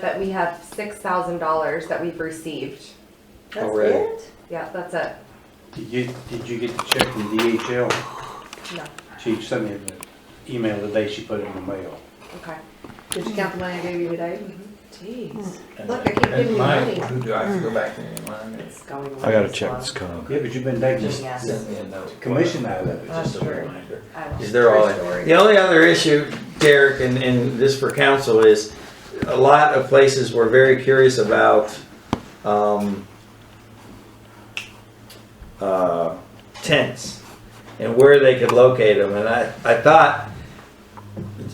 But we have six thousand dollars that we've received. That's Already. it? Yeah, that's it. Did you, did you get the check from DHL? No, She sent me the email the day she put it in the mail. okay. Mm-hmm. Did you count the money I gave you today? Jeez. Look, I keep And giving you mine- money. Who do I have to go back and remind me? It's going. I gotta away, check so- this con. Yeah, but you've been taking Just ask this Send me a note. commission out of it. Oh, Just a Sure. reminder. I will. Is there all, True story. the only other issue, Derek, and, and this for council is, a lot of places were very curious about, um, uh, tents and where they could locate them. And I, I thought,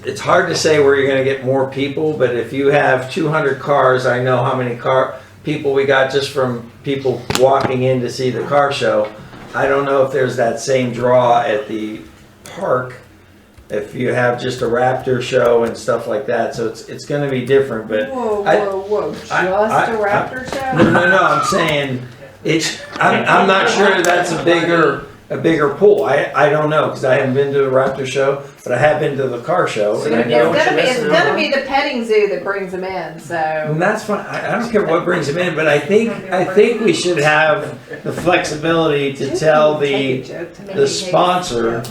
it's hard to say where you're gonna get more people, but if you have two hundred cars, I know how many car, people we got just from people walking in to see the car show. I don't know if there's that same draw at the park if you have just a raptor show and stuff like that. So it's it's going to be different. But Whoa, I- whoa, whoa, just I- I- a raptor no, show? no, no. I'm saying it's. I'm, I'm not sure that's a bigger a bigger pool. I I don't know because I haven't been to a raptor show, but I have been to the car show. and I It's know, gonna be, it's gonna be the petting zoo that brings them in, so. and that's fine. I, I don't care what brings them in, but I think I think we should have the flexibility to tell the the sponsor.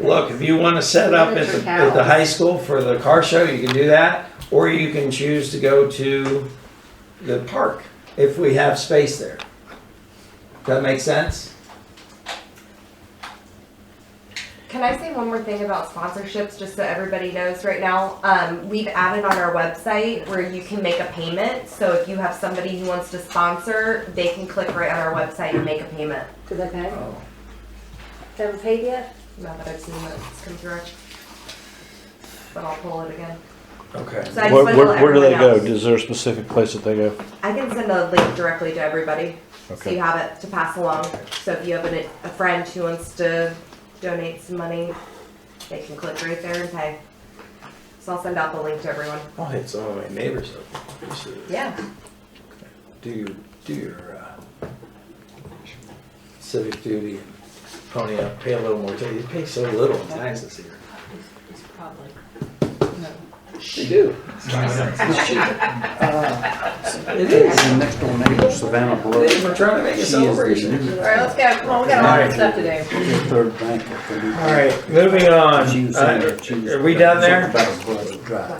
Look, if you want to set up at the, at the high school for the car show, you can do that, or you can choose to go to the park if we have space there. Does that make sense? Can I say one more thing about sponsorships, just so everybody knows right now? Um, we've added on our website where you can make a payment. So if you have somebody who wants to sponsor, they can click right on our website and make a payment. Did they pay? Oh. Haven't paid yet? Now that I've seen what's come through. But I'll pull it again. Okay. So I Where, just wanted to where, let where do they everyone go? else- Is there a specific place that they go? I can send a link directly to everybody, so Okay. you have it to pass along. So if you have an, a friend who wants to donate some money, they can click right there and pay. So I'll send out the link to everyone. I'll hit some of my neighbors up. Just to Yeah. Do your, do your, uh, civic duty and pony up, pay a little more, you pay so little in taxes here. They do. Uh, It is. My next door neighbor, Savannah Brooks, We're trying to make a she is celebration. the new All right, let's go, come on, we got a lot of stuff to do. third bank. of the new- All right, moving on. She was saying that she was- Uh, Are we done there? About a brother drive.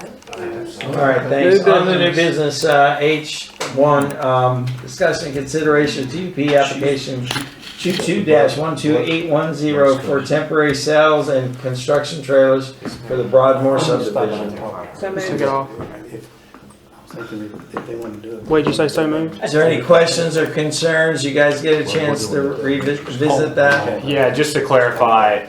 All right, thanks. On the new business, uh, H one, um, discussion consideration of TUP application two-two dash one-two-eight-one-zero for temporary sales and construction trailers for the Broadmoor subdivision. So Took it moved. off. If- I was thinking if they wouldn't do it. Wait, you say so moved? Is there any questions or concerns? You guys get a chance to revisit that? Okay. Yeah, just to clarify,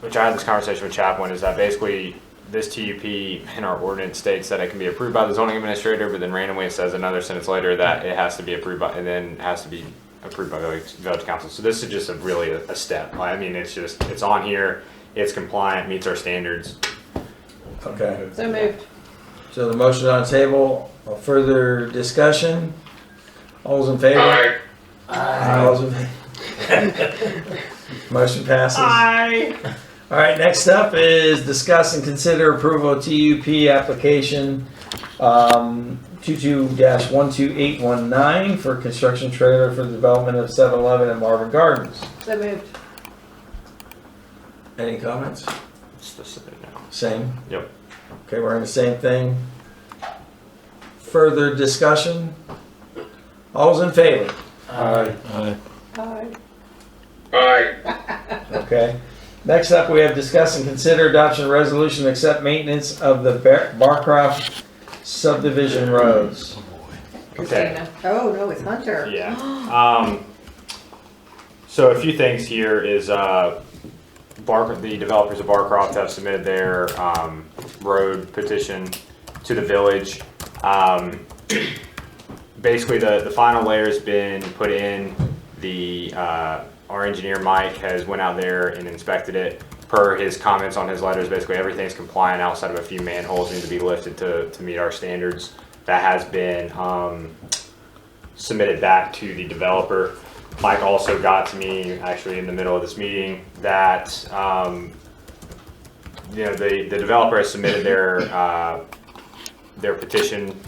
which I had this conversation with Chaplin, is that basically this TUP in our ordinance states that it can be approved by the zoning administrator, but then randomly it says another sentence later that it has to be approved by, and then has to be approved by the village- village council. So this is just a really a a step. I mean, it's just, it's on here, it's compliant, meets our standards. Okay, So moved. so the motion on the table, further discussion? All's in favor? All's in favor? Motion passes. All right, next up is discuss and consider approval of TUP application um, 22-12819 for construction trailer for the development of 7-Eleven and Marvin Gardens. So moved. Any comments? It's just a- no. Same? Yep. Okay, we're in the same thing. Further discussion? All's in favor? Alright, Uh, Aye. Okay. Next up, we have discuss and consider adoption of resolution to accept maintenance of the Bar- Barcroft subdivision roads. Okay. Christina. Oh, no, it's Hunter. Yeah. Um, so a few things here is, uh, Bar, the developers of Barcroft have submitted their, um, road petition to the village. Um, basically, the, the final layer's been put in. The, uh, our engineer Mike has went out there and inspected it. Per his comments on his letters, basically everything's compliant outside of a few manholes need to be lifted to, to meet our standards. That has been, um, submitted back to the developer. Mike also got to me actually in the middle of this meeting that, um, you know, the, the developer has submitted their, uh, their petition